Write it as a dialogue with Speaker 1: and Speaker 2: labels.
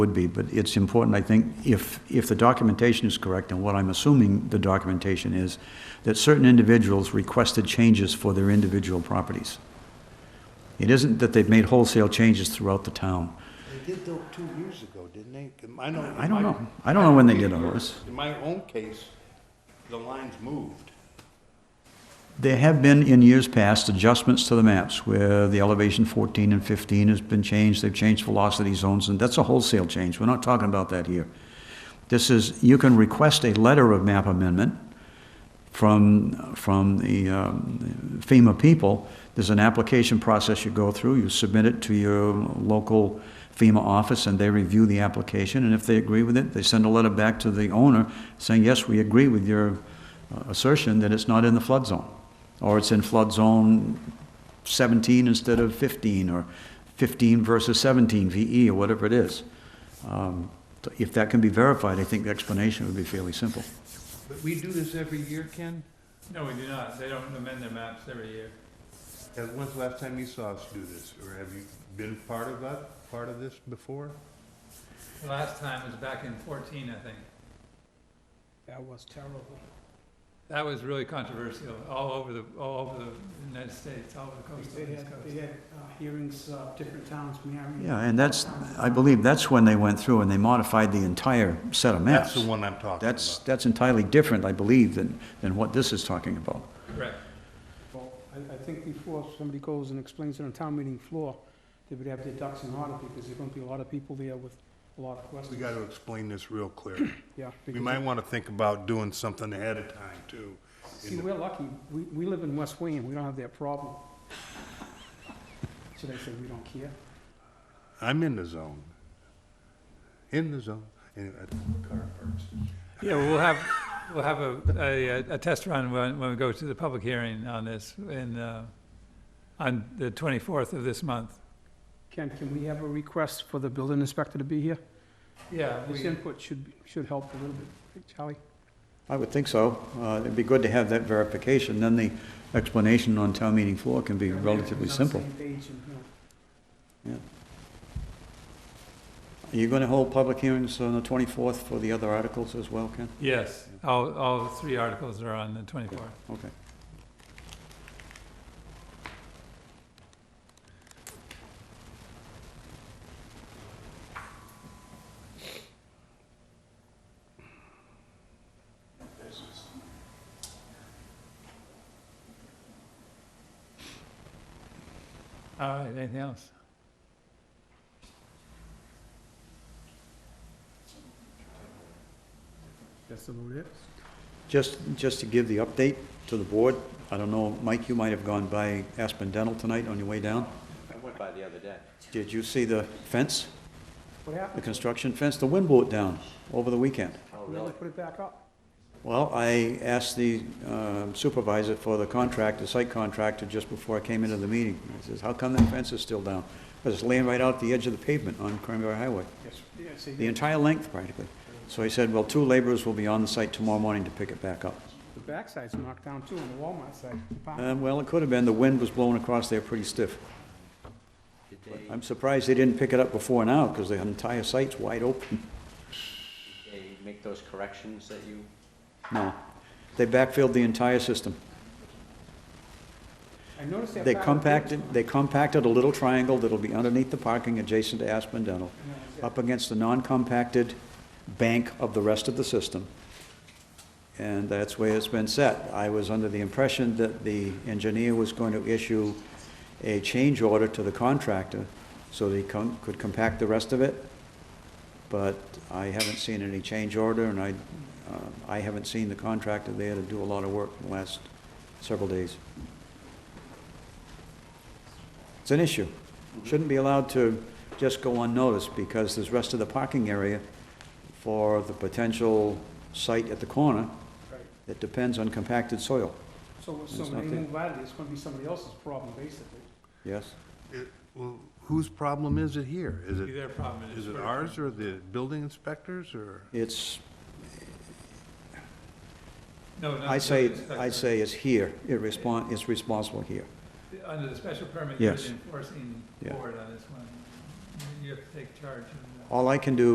Speaker 1: would be, but it's important, I think, if, if the documentation is correct, and what I'm assuming the documentation is, that certain individuals requested changes for their individual properties. It isn't that they've made wholesale changes throughout the town.
Speaker 2: They did though two years ago, didn't they? I know.
Speaker 1: I don't know. I don't know when they did all this.
Speaker 2: In my own case, the lines moved.
Speaker 1: There have been, in years past, adjustments to the maps where the elevation 14 and 15 has been changed, they've changed velocity zones, and that's a wholesale change. We're not talking about that here. This is, you can request a letter of map amendment from, from the um, FEMA people. There's an application process you go through, you submit it to your local FEMA office, and they review the application, and if they agree with it, they send a letter back to the owner saying, yes, we agree with your uh, assertion that it's not in the flood zone, or it's in flood zone 17 instead of 15, or 15 versus 17 VE, or whatever it is. Um, so If that can be verified, I think the explanation would be fairly simple.
Speaker 2: But we do this every year, Ken?
Speaker 3: No, we do not. They don't amend their maps every year.
Speaker 2: Yeah, When's the last time you saw us do this? Or have you been part of that, part of this before?
Speaker 3: The last time was back in fourteen, I think.
Speaker 4: That was terrible.
Speaker 3: That was really controversial, all over the, all over the United States, all over the coast,
Speaker 4: They
Speaker 3: all over
Speaker 4: had,
Speaker 3: the coast.
Speaker 4: they had uh, hearings, uh, different towns, Marion.
Speaker 1: Yeah, and that's, I believe that's when they went through and they modified the entire set of
Speaker 2: That's
Speaker 1: maps.
Speaker 2: the one I'm talking
Speaker 1: That's,
Speaker 2: about.
Speaker 1: that's entirely different, I believe, than, than what this is talking about.
Speaker 3: Correct.
Speaker 4: Well, I, I think before somebody goes and explains it on town meeting floor, they would have their ducks in order because there's gonna be a lot of people there with a lot of
Speaker 2: We
Speaker 4: questions.
Speaker 2: gotta explain this real clear.
Speaker 4: Yeah.
Speaker 2: We
Speaker 4: because-
Speaker 2: might wanna think about doing something ahead of time too.
Speaker 4: See, we're lucky. We, we live in West Wayne. We don't have that problem. Should I say we don't care?
Speaker 2: I'm in the zone. In the zone. Anyway, I- car parks.
Speaker 3: Yeah, we'll have, we'll have a, a, a test run when, when we go to the public hearing on this in, uh, on the twenty-fourth of this month.
Speaker 4: Ken, can we have a request for the building inspector to be here?
Speaker 3: Yeah,
Speaker 4: His
Speaker 3: we,
Speaker 4: input should, be- should help a little bit. Hey, Charlie?
Speaker 1: I would think so. Uh, It'd be good to have that verification, then the explanation on town meeting floor can be relatively
Speaker 4: Everybody's on the
Speaker 1: simple.
Speaker 4: same page and, you know,
Speaker 1: Are you going to hold public hearings on the 24th for the other articles as well, Ken?
Speaker 3: yes, all, all three articles are on the twenty-fourth.
Speaker 1: Okay.
Speaker 3: All right, anything else?
Speaker 4: That's about it.
Speaker 1: Just, just to give the update to the board, I don't know, Mike, you might have gone by Aspen Dental tonight on your way down.
Speaker 5: I went by the other day.
Speaker 1: Did you see the fence,
Speaker 4: What happened?
Speaker 1: the construction fence? The wind blew it down over the weekend.
Speaker 5: Oh,
Speaker 4: We never
Speaker 5: really?
Speaker 4: put it back up.
Speaker 1: Well, I asked the um, supervisor for the contractor, site contractor, just before I came into the meeting. I says, how come that fence is still down? Because it's laying right out the edge of the pavement on Cranberry Highway,
Speaker 4: Yes.
Speaker 1: the entire length practically. So he said, well, two laborers will be on the site tomorrow morning to pick it back up.
Speaker 4: The backside's knocked down too, on the Walmart side. the back.
Speaker 5: Uh,
Speaker 1: Um, Well, it could have been, the wind was blowing across there pretty stiff.
Speaker 5: Did they,
Speaker 1: I'm surprised they didn't pick it up before now, because the entire site's wide open.
Speaker 5: they make those corrections that you,
Speaker 1: No, they backfilled the entire system.
Speaker 4: I noticed that.
Speaker 1: They
Speaker 4: back of the
Speaker 1: compacted, they compacted a little triangle that'll be underneath the parking adjacent to Aspen Dental, up against the non-compacted bank of the rest of the system. And that's where it's been set. I was under the impression that the engineer was going to issue a change order to the contractor so that he com- could compact the rest of it. But I haven't seen any change order, and I, uh, I haven't seen the contractor there to do a lot of work in the last several days. It's an issue. Shouldn't be allowed to just go unnoticed because there's rest of the parking area for the potential site at the corner
Speaker 4: Right.
Speaker 1: that depends on compacted soil.
Speaker 4: So, so
Speaker 1: There's
Speaker 4: when they
Speaker 1: nothing.
Speaker 4: move out of it, it's gonna be somebody else's problem, basically.
Speaker 1: Yes?
Speaker 2: It- Well, whose problem is it here? Is
Speaker 3: Be
Speaker 2: it,
Speaker 3: their problem.
Speaker 2: is it
Speaker 3: for-
Speaker 2: ours or the building inspectors or?
Speaker 1: It's,
Speaker 3: No, not
Speaker 1: I
Speaker 3: the
Speaker 1: say,
Speaker 3: building
Speaker 1: I
Speaker 3: inspector.
Speaker 1: say it's here. It respon it's responsible here.
Speaker 3: Under the special permit, you're
Speaker 1: Yes.
Speaker 3: the enforcing
Speaker 1: Yeah.
Speaker 3: board on this one. You have to take charge of that.
Speaker 1: All I can do